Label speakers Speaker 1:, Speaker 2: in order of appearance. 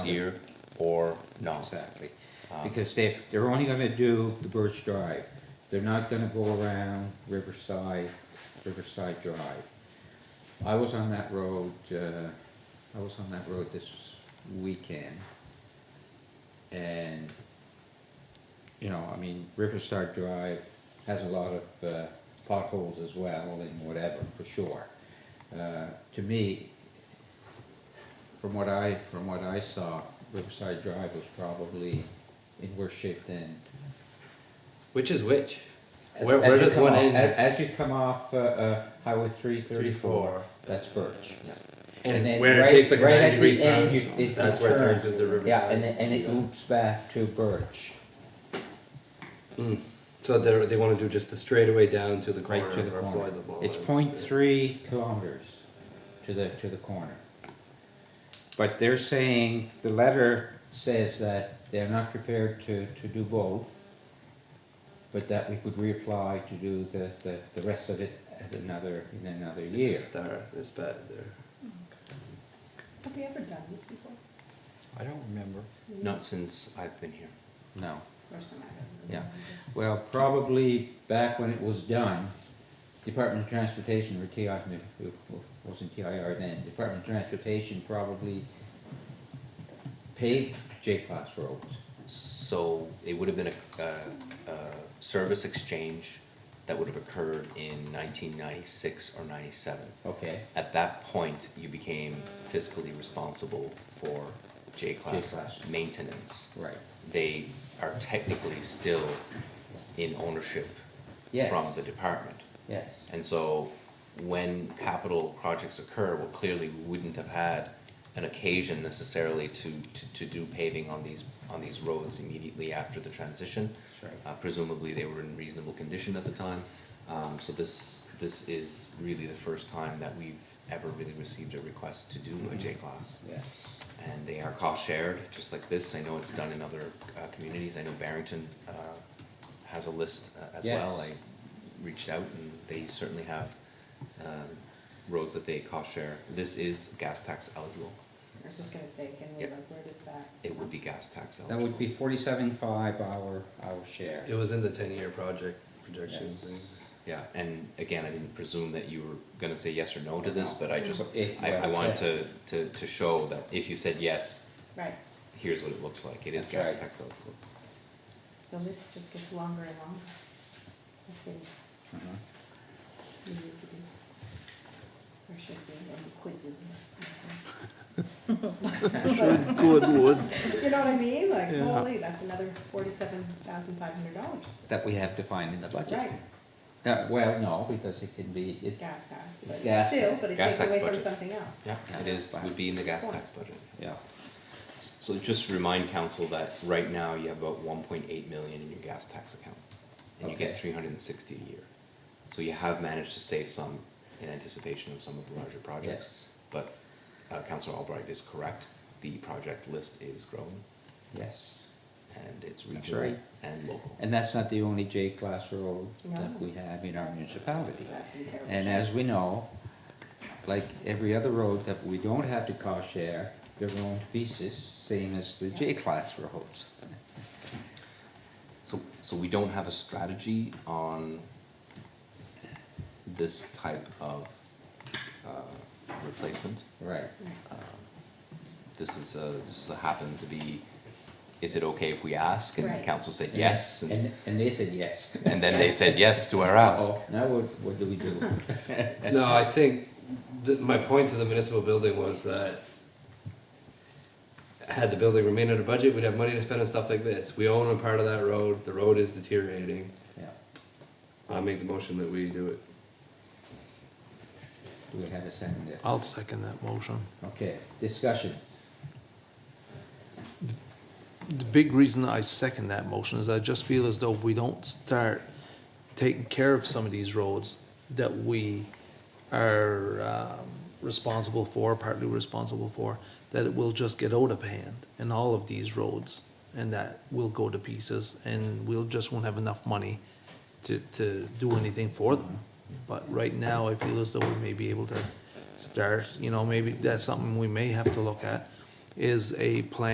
Speaker 1: year or no.
Speaker 2: Exactly, because they, they're only gonna do the Birch Drive, they're not gonna go around Riverside, Riverside Drive. I was on that road, uh, I was on that road this weekend. And, you know, I mean, Riverside Drive has a lot of, uh, potholes as well and whatever, for sure. Uh, to me, from what I, from what I saw, Riverside Drive was probably in worse shape than.
Speaker 3: Which is which?
Speaker 2: as-
Speaker 3: Where,
Speaker 2: as
Speaker 3: where
Speaker 2: you
Speaker 3: does
Speaker 2: come
Speaker 3: one
Speaker 2: off-
Speaker 3: end?
Speaker 2: As, as you come off, uh, uh, Highway three thirty-four,
Speaker 3: 34.
Speaker 2: that's Birch.
Speaker 3: and
Speaker 2: then
Speaker 3: where
Speaker 2: right-
Speaker 3: it takes like
Speaker 2: right
Speaker 3: a
Speaker 2: at
Speaker 3: 90 degree
Speaker 2: the end,
Speaker 3: turn,
Speaker 2: you- it-
Speaker 3: that's
Speaker 2: it
Speaker 3: where it
Speaker 2: turns.
Speaker 3: turns into riverside.
Speaker 2: Yeah, and then, and it loops back to Birch,
Speaker 3: So they they want to do just the straightaway down to the corner
Speaker 2: right to the
Speaker 3: or
Speaker 2: corner.
Speaker 3: Floyd the
Speaker 2: It's point three kilometers to the, to the corner. But they're saying, the letter says that they're not prepared to, to do both, but that we could reapply to do the, the, the rest of it at another, in another
Speaker 3: It's
Speaker 2: year.
Speaker 3: a star. It's bad there.
Speaker 4: Have we ever done this before? Mm-hmm.
Speaker 1: I don't remember. Not since I've been here.
Speaker 2: No,
Speaker 4: It's the first time I've
Speaker 2: yeah.
Speaker 4: ever done this.
Speaker 2: Well, probably back when it was done, Department of Transportation, or TI, it wasn't TIR then, Department of Transportation probably paved J-class roads.
Speaker 1: So it would have been a, a, a service exchange that would have occurred in nineteen ninety-six or ninety-seven.
Speaker 2: Okay,
Speaker 1: At that point, you became fiscally responsible for J-class
Speaker 2: J-class.
Speaker 1: maintenance.
Speaker 2: right,
Speaker 1: They are technically still in ownership
Speaker 2: Yes.
Speaker 1: from the department.
Speaker 2: yes,
Speaker 1: And so when capital projects occur, well, clearly we wouldn't have had an occasion necessarily to, to, to do paving on these, on these roads immediately after the transition.
Speaker 2: That's right.
Speaker 1: Uh, presumably they were in reasonable condition at the time. Um, so this, this is really the first time that we've ever really received a request to do a J-class.
Speaker 2: yes.
Speaker 1: And they are cost shared, just like this. I know it's done in other, uh, communities. I know Barrington, uh, has a list uh, as well. I
Speaker 2: Yes.
Speaker 1: reached out and they certainly have, um, roads that they cost share. This is gas tax eligible.
Speaker 4: I was just gonna say, can we,
Speaker 1: Yeah.
Speaker 4: like, where does that?
Speaker 1: It would be gas tax
Speaker 2: That
Speaker 1: eligible.
Speaker 2: would be forty-seven five our, our share.
Speaker 3: It was in the ten year project projection
Speaker 2: Yes.
Speaker 3: thing.
Speaker 1: Yeah, and again, I didn't presume that you were gonna say yes or no to this, but I just,
Speaker 2: If- uh,
Speaker 1: I, I wanted
Speaker 2: yeah.
Speaker 1: to, to, to show that if you said yes,
Speaker 4: Right,
Speaker 1: here's what it looks like. It is
Speaker 2: That's
Speaker 1: gas
Speaker 2: right.
Speaker 1: tax eligible.
Speaker 4: the list just gets longer and longer. of things
Speaker 2: Mhm.
Speaker 4: we need to do. Or should be, or we quit doing it.
Speaker 5: Goodwood.
Speaker 4: You know what I mean? Like,
Speaker 5: Yeah.
Speaker 4: holy, that's another forty-seven thousand five hundred dollars.
Speaker 2: That we have defined in the budget.
Speaker 4: Right,
Speaker 2: Uh, well, no, because it can be, it,
Speaker 4: gas tax, but
Speaker 2: It's gas.
Speaker 4: still, but it
Speaker 1: Gas
Speaker 4: takes
Speaker 1: tax
Speaker 4: away from
Speaker 1: budget.
Speaker 4: something else.
Speaker 1: Yeah, it is, would be in the gas tax budget.
Speaker 2: yeah,
Speaker 1: So just remind council that right now you have about one point eight million in your gas tax account, and you get
Speaker 2: Okay.
Speaker 1: three hundred and sixty a year. So you have managed to save some in anticipation of some of the larger projects, but, uh, councilor Albright is correct, the project list is growing,
Speaker 2: yes.
Speaker 1: and it's
Speaker 2: That's
Speaker 1: regional
Speaker 2: right.
Speaker 1: and local.
Speaker 2: And that's not the only J-class road
Speaker 4: No.
Speaker 2: that we have in our municipality.
Speaker 4: That's in terrible
Speaker 2: And
Speaker 4: shape.
Speaker 2: as we know, like every other road that we don't have to cost share, they're going to pieces, same as the
Speaker 4: Yeah.
Speaker 2: J-class roads.
Speaker 1: So, so we don't have a strategy on this type of, uh, replacement?
Speaker 2: Right.
Speaker 4: Right.
Speaker 1: this is a, this is a happen to be, is it okay if we ask? And the
Speaker 4: Right.
Speaker 1: council said yes, and,
Speaker 2: And, and they said yes.
Speaker 1: and then they said yes to our ask.
Speaker 2: Oh, now what, what do we do?
Speaker 3: No, I think th- my point to the municipal building was that had the building remained under budget, we'd have money to spend on stuff like this. We own a part of that road. The road is deteriorating.
Speaker 2: Yeah.
Speaker 3: I make the motion that we do it.
Speaker 2: Do we have a second there?
Speaker 5: I'll second that motion.
Speaker 2: Okay, discussion.
Speaker 5: The big reason I second that motion is I just feel as though if we don't start taking care of some of these roads that we are um, responsible for, partly responsible for, that it will just get out of hand in all of these roads and that will go to pieces and we'll just won't have enough money to, to do anything for them. But right now, I feel as though we may be able to start, you know, maybe that's something we may have to look at, is a plan